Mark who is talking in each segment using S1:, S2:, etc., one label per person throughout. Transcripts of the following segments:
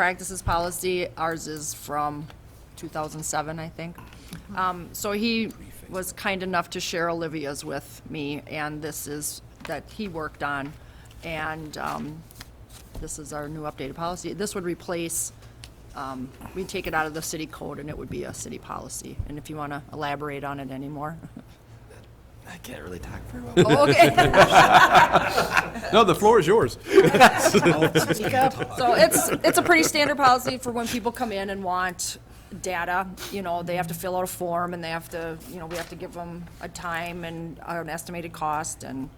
S1: practices policy. Ours is from 2007, I think. Um, So he was kind enough to share Olivia's with me, and this is, that he worked on. And um, this is our new updated policy. This would replace, um, we take it out of the city code, and it would be a city policy. And if you want to elaborate on it anymore.
S2: I can't really talk very well.
S1: Oh. Okay.
S3: No, the floor is yours.
S1: So it's, it's a pretty standard policy for when people come in and want data, you know, they have to fill out a form and they have to, you know, we have to give them a time and uh, an estimated cost and,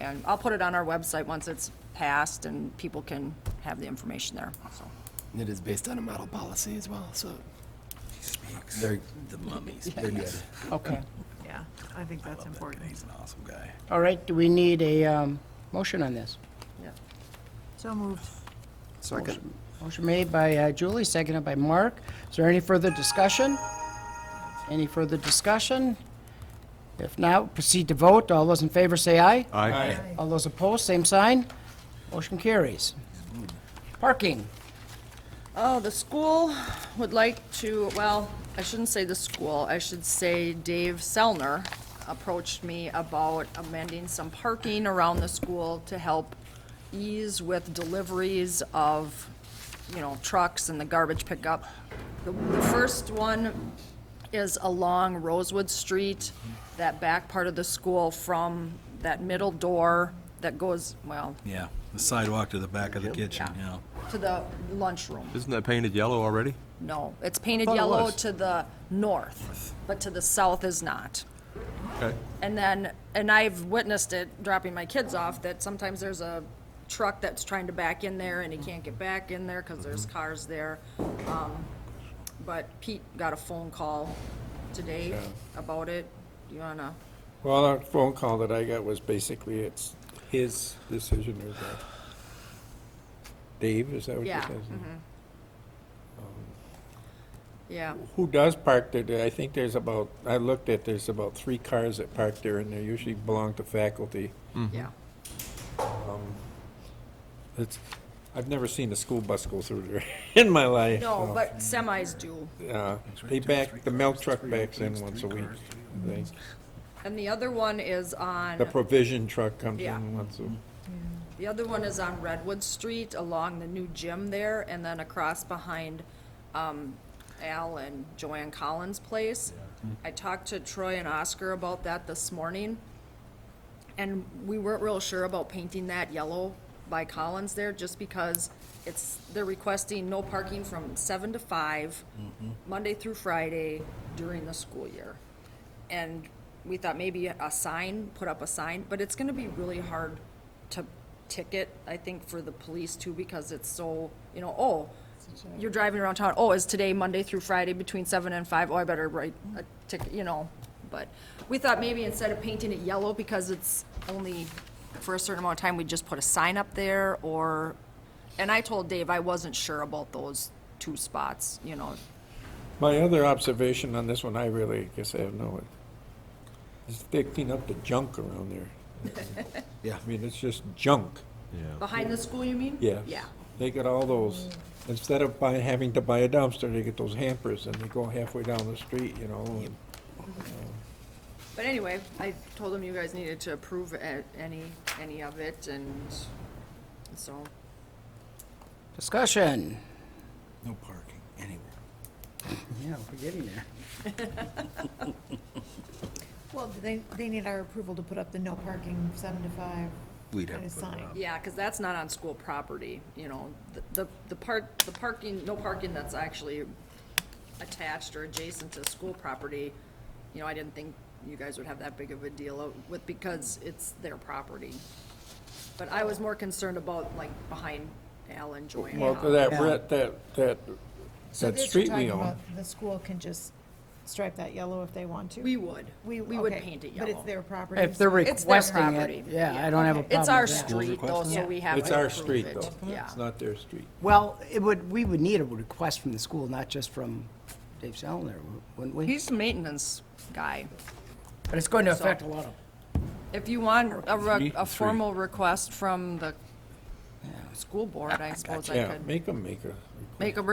S1: and I'll put it on our website once it's passed and people can have the information there, so.
S2: It is based on a model policy as well, so. They're the mummies. They're good.
S4: Okay.
S5: Yeah, I think that's important.
S6: He's an awesome guy.
S4: All right, do we need a um, motion on this?
S5: So moved.
S2: Second.
S4: Motion made by uh, Julie, seconded by Mark. Is there any further discussion? Any further discussion? If not, proceed to vote. All those in favor say aye.
S3: Aye.
S4: All those opposed, same sign. Motion carries. Parking.
S1: Oh, the school would like to, well, I shouldn't say the school, I should say Dave Selner approached me about amending some parking around the school to help ease with deliveries of, you know, trucks and the garbage pickup. The the first one is along Rosewood Street, that back part of the school from that middle door that goes, well,
S6: Yeah, the sidewalk to the back of the kitchen,
S1: Yeah.
S6: yeah.
S1: to the lunchroom.
S3: Isn't that painted yellow already?
S1: No, it's painted
S3: Thought it
S1: yellow
S3: was.
S1: to the north, but to the south is not.
S3: Okay.
S1: And then, and I've witnessed it dropping my kids off, that sometimes there's a truck that's trying to back in there and he can't get back in there because
S3: Mm-hmm.
S1: there's cars there. Um, But Pete got a phone call today about it. You wanna,
S7: Well, that phone call that I got was basically it's his decision or the, Dave, is that what you're
S1: yeah.
S7: saying?
S1: mhm. Yeah,
S7: Who does park there? I think there's about, I looked at, there's about three cars that park there and they usually belong to faculty.
S3: Mm-hmm.
S1: yeah.
S7: It's, I've never seen a school bus go through there in my life.
S1: No, but semis do.
S7: but. Uh, they back, the milk truck backs in once a week, I think.
S1: And the other one is on.
S7: The provision truck comes
S1: Yeah.
S7: in once a.
S1: The other one is on Redwood Street along the new gym there and then across behind um, Al and Joanne Collins' place. I talked to Troy and Oscar about that this morning. And we weren't real sure about painting that yellow by Collins there just because it's, they're requesting no parking from seven to five, Monday through Friday during the school year. And we thought maybe a sign, put up a sign, but it's gonna be really hard to ticket, I think, for the police too, because it's so, you know, oh, you're driving around town, oh, is today Monday through Friday between seven and five? Oh, I better write a ticket, you know. But we thought maybe instead of painting it yellow, because it's only for a certain amount of time, we just put a sign up there or, and I told Dave I wasn't sure about those two spots, you know.
S7: My other observation on this one, I really, guess I have no, is they clean up the junk around there.
S2: Yeah.
S7: I mean, it's just junk,
S1: Behind the school, you mean?
S7: yeah.
S1: Yeah.
S7: They got all those, instead of buying, having to buy a dumpster, they get those hampers and they go halfway down the street, you know. and-
S1: But anyway, I told him you guys needed to approve a- any, any of it and so.
S4: Discussion.
S6: No parking anywhere.
S4: Yeah, we're getting there.
S5: Well, do they, they need our approval to put up the no parking seven to five.
S6: We'd have
S5: kind of
S6: to put it
S5: sign.
S6: up.
S1: Yeah, because that's not on school property, you know, The- the, the part, the parking, no parking that's actually attached or adjacent to school property, you know, I didn't think you guys would have that big of a deal with, because it's their property. But I was more concerned about like behind Al and Joanne.
S7: Well, that, red- that, that,
S5: So
S7: that
S5: this
S7: street
S5: you're
S7: we
S5: talking
S7: own.
S5: about, the school can just stripe that yellow if they want to?
S1: We would, we would
S5: okay,
S1: paint it
S5: But it's
S1: yellow.
S5: their property.
S4: If they're
S5: so-
S1: It's their
S4: requesting
S1: property.
S4: it, yeah, I don't have a problem with that.
S1: It's our street though,
S6: requesting
S1: so
S5: it?
S1: we have to
S7: It's our
S1: approve
S7: street
S1: it.
S7: though.
S1: Yeah.
S7: It's not their street.
S4: Well, it would, we would need a request from the school, not just from Dave Salinger, wouldn't we?
S1: He's the maintenance guy.
S4: But it's going to affect a lot of
S1: If you want a, re-
S6: Three,
S1: a
S6: three.
S1: formal request from the
S7: school board, I suppose I
S1: Yeah,
S7: could
S1: make them make a
S7: make a